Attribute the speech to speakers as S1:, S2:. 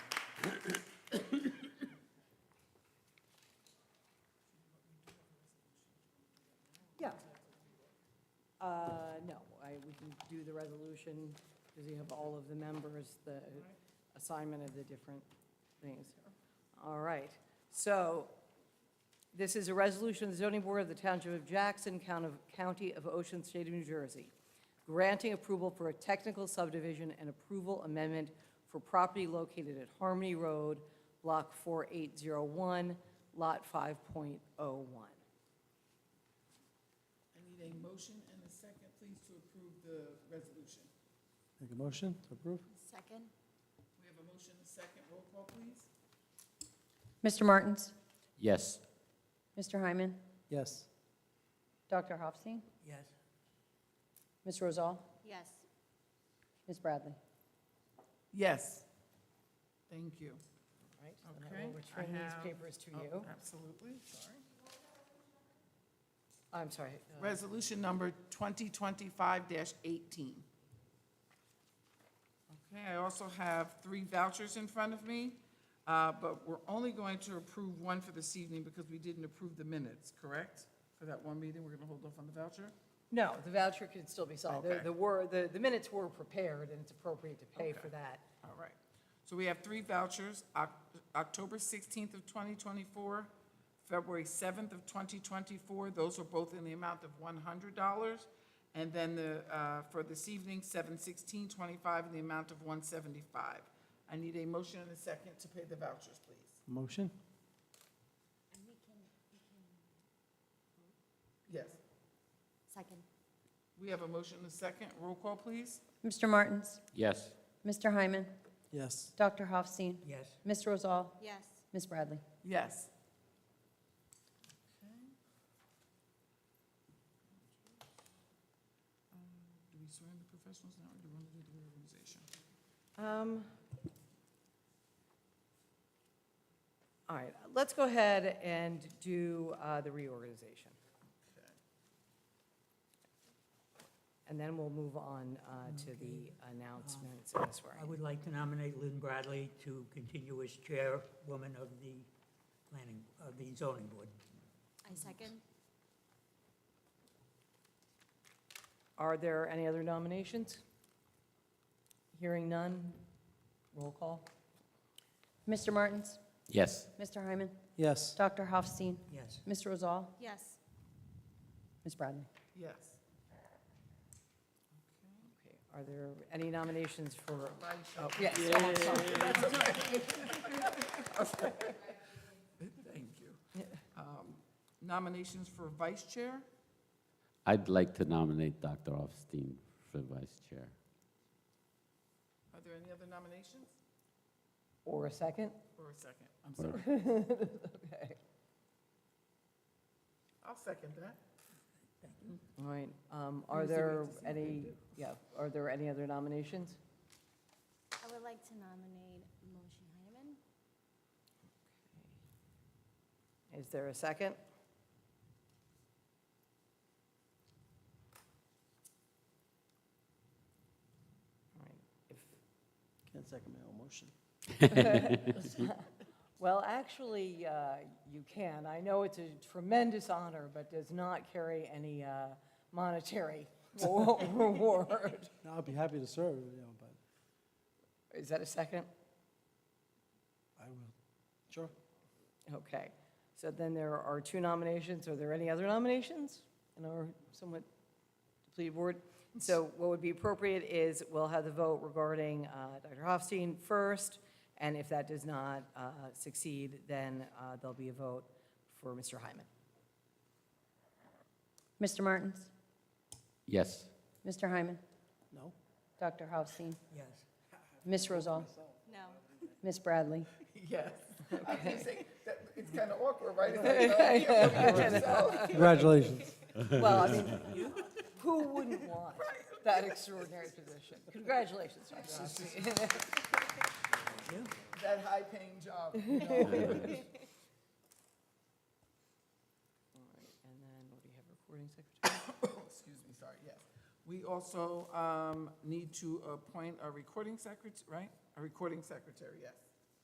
S1: Yeah. Uh, No, I, we can do the resolution, because you have all of the members, the assignment of the different things. All right, so this is a resolution of the zoning board of the Township of Jackson, Count of- County of Ocean, State of New Jersey, granting approval for a technical subdivision and approval amendment for property located at Harmony Road, Block 4801, Lot 5.01.
S2: I need a motion and a second, please, to approve the resolution.
S3: Make a motion to approve?
S4: Second?
S2: We have a motion and a second, roll call, please.
S5: Mr. Martins?
S6: Yes.
S5: Mr. Hyman?
S3: Yes.
S5: Dr. Hofstein?
S2: Yes.
S5: Ms. Rosal?
S4: Yes.
S5: Ms. Bradley?
S2: Yes. Thank you.
S1: Right,
S2: and I
S1: and I
S2: will
S1: will
S2: Okay, I
S1: return these
S2: have-
S1: papers to
S2: Oh,
S1: you.
S2: Absolutely, sorry.
S1: I'm sorry. uh,
S2: Resolution number 2025-18. Okay, I also have three vouchers in front of me, uh, but we're only going to approve one for this evening because we didn't approve the minutes, correct? For that one meeting, we're going to hold off on the voucher?
S1: No, the voucher can still be signed. The-
S2: Okay.
S1: The were, the the minutes were prepared, and it's appropriate to pay for
S2: Okay.
S1: that.
S2: All right. So we have three vouchers, Oc- October 16th of 2024, February 7th of 2024. Those are both in the amount of $100. And then the, uh, for this evening, 7/16/25 in the amount of 175. I need a motion and a second to pay the vouchers, please.
S3: Motion?
S2: Yes.
S4: Second?
S2: We have a motion and a second. Roll call, please.
S5: Mr. Martins?
S6: Yes.
S5: Mr. Hyman?
S3: Yes.
S5: Dr. Hofstein?
S2: Yes.
S5: Ms. Rosal?
S4: Yes.
S5: Ms. Bradley?
S2: Yes. Um, Do we swear in the professionals now, or do we want to do the reorganization?
S1: Um, All right, let's go ahead and do uh, the reorganization,
S2: Okay.
S1: and then we'll move on uh, to the announcements and the
S7: I
S1: swearing.
S7: would like to nominate Lynn Bradley to continue as chairwoman of the planning, of the zoning board.
S4: I second?
S1: Are there any other nominations? Hearing none, roll call.
S5: Mr. Martins?
S6: Yes.
S5: Mr. Hyman?
S3: Yes.
S5: Dr. Hofstein?
S7: Yes.
S5: Ms. Rosal?
S4: Yes.
S5: Ms. Bradley?
S2: Yes.
S1: Okay, Are there any nominations for,
S2: Elisha.
S1: oh, yes, oh, I'm sorry.
S2: Thank you. Um, Nominations for vice chair?
S6: I'd like to nominate Dr. Offstein for vice chair.
S2: Are there any other nominations?
S1: or a second?
S2: Or a second? I'm
S6: Or-
S2: sorry. I'll second that.
S1: All right, um, are
S2: me see what
S1: there
S2: to see what they
S1: any,
S2: do.
S1: yeah, are there any other nominations?
S4: I would like to nominate Moshe Heineman.
S1: Is there a second? All right, if-
S3: Can't second my own motion.
S1: Well, actually, uh, you can. I know it's a tremendous honor, but does not carry any uh, monetary reward.
S3: No, I'd be happy to serve, you know, but
S1: Is that a second?
S3: I will. Sure.
S1: Okay, so then there are two nominations. Are there any other nominations in our somewhat depleted board? So what would be appropriate is we'll have the vote regarding uh, Dr. Hofstein first, and if that does not uh, succeed, then uh, there'll be a vote for Mr. Hyman.
S5: Mr. Martins?
S6: Yes.
S5: Mr. Hyman?
S3: No?
S5: Dr. Hofstein?
S7: Yes.
S5: Ms. Rosal?
S4: No.
S5: Ms. Bradley?
S2: Yes. I keep saying, that- it's kind of awkward, right? It's like, no, you can't vote for yourself.
S3: Congratulations.
S1: Well, I mean, who wouldn't want that extraordinary position? Congratulations, Dr. Hofstein.
S2: That high-paying job. you know.
S1: All right, And then what do you have, recording secretary?
S2: Excuse me, sorry, yes. We also um, need to appoint a recording secretary, right? A recording secretary, yes.